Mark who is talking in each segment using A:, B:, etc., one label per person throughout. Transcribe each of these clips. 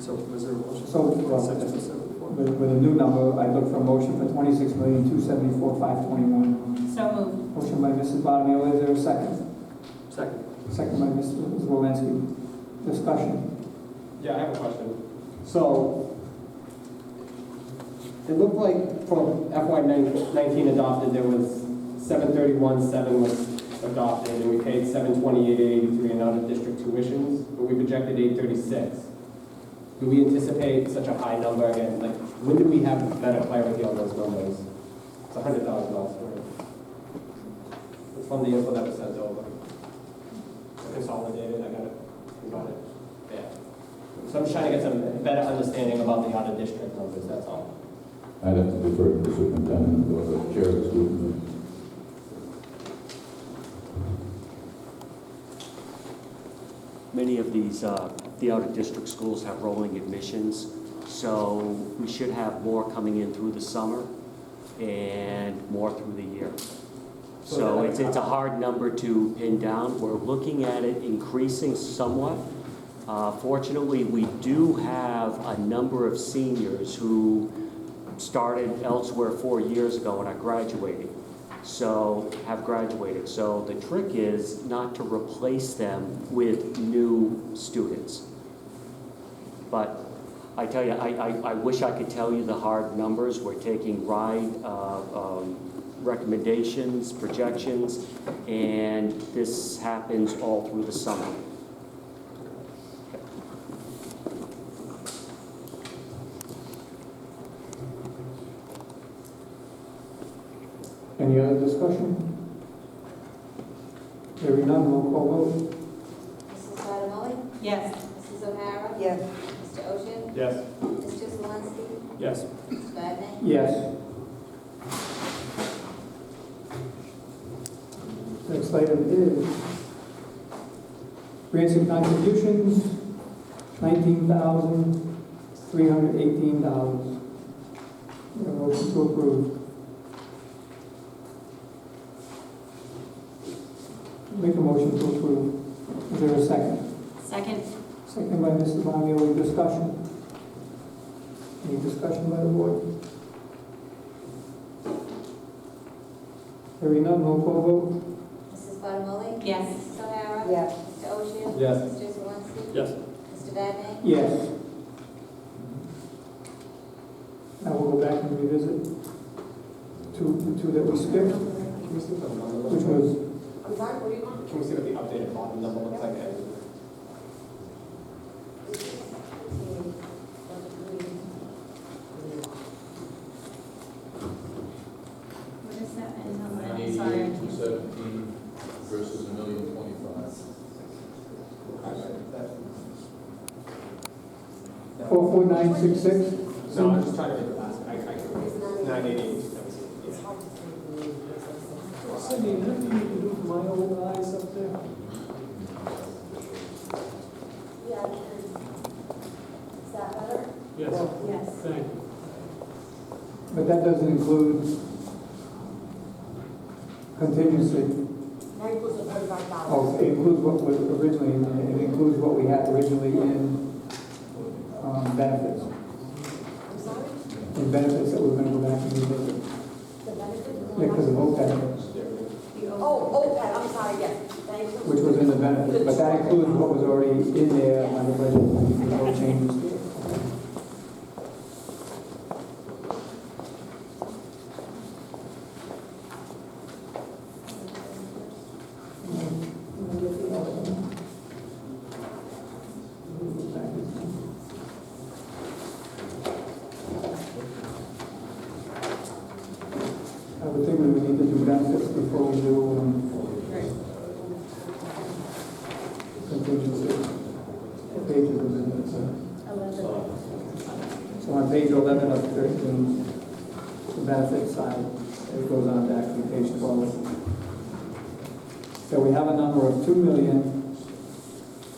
A: So was there a motion?
B: So, well,
A: Six
B: it's-
A: to seven before?
B: With, with a new number, I look for a motion for twenty-six million, two seventy-four, five twenty-one.
C: So moved.
B: Motion by Mrs. Bonneville, is there a second?
A: Second.
B: Second by Mrs. Wolanski. Discussion.
D: Yeah, I have a question. So, it looked like from FY nineteen adopted, there was seven thirty-one, seven was adopted, and we paid seven twenty-eight, eighty-three in out-of-district tuitions, but we projected eight thirty-six. Do we anticipate such a high number again? Like, when do we have better clarity on those numbers? It's a hundred thousand dollars for it. It's from the info that was sent over. Consolidated, I got it, we got it, yeah. So I'm just trying to get some better understanding about the out-of-district numbers, that's all.
E: I'd have to defer to the superintendent or the chair of the school committee.
F: Many of these, uh, the out-of-district schools have rolling admissions, so we should have more coming in through the summer and more through the year. So it's, it's a hard number to pin down. We're looking at it increasing somewhat. Uh, Fortunately, we do have a number of seniors who started elsewhere four years ago and are graduating, so, have graduated. So the trick is not to replace them with new students. But I tell you, I, I, I wish I could tell you the hard numbers. We're taking ride, uh, um, recommendations, projections, and this happens all through the summer.
B: Any other discussion? Hearing none, roll call vote.
G: Mrs. Bottomoli?
C: Yes.
G: Mrs. O'Hara?
H: Yes.
G: Mr. Oshia?
D: Yes.
G: Mr. Zelinski?
D: Yes.
G: Mr. Vadeney?
B: Yes. Next item is grants and contributions, nineteen thousand, three hundred eighteen dollars. Motion to approve. Make a motion to approve. Is there a second?
C: Second.
B: Second by Mrs. Bonneville, any discussion? Any discussion by the board? Hearing none, roll call vote.
G: Mrs. Bottomoli?
C: Yes.
G: Mrs. O'Hara?
H: Yes.
G: Mr. Oshia?
D: Yes.
G: Mr. Zelinski?
D: Yes.
G: Mr. Vadeney?
B: Yes. Now we'll go back and revisit two, the two that we skipped,
D: Can we see what the bottom
B: which was,
D: I'm sorry, what do you want? Can we see what the updated bottom number looks like?
C: What is that? I'm sorry, I can't.
E: seventeen versus a million twenty-five.
B: four four nine six six.
D: No, I'm just trying to make the last, I, I can, nine eighty, yeah.
A: Cindy, nothing you can do for my old eyes up there?
G: Yeah. Is that better?
A: Yes,
G: Yes.
A: thank you.
B: But that doesn't include contingency. Oh, it includes what was originally, in it includes what we had originally in um, benefits,
G: I'm sorry?
B: in benefits that we're gonna go back and revisit.
G: The benefit?
B: Yeah, because of OPEB,
G: Oh, OPEB, I'm sorry, yes, thank you.
B: which was in the benefits, but that includes what was already in there on the budget, with no changes. I would think we would need to do benefits before we do um, contingency. What page is it in? It's,
G: Eleven.
B: uh, So on page 11 of 13, the benefit side, it goes on to actually page 12. So we have a number of two million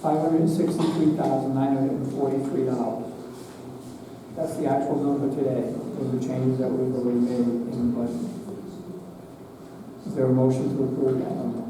B: five hundred sixty-three thousand nine hundred forty-three dollars That's the actual number today, with the changes that we've already made in the budget. Is there a motion to approve that number?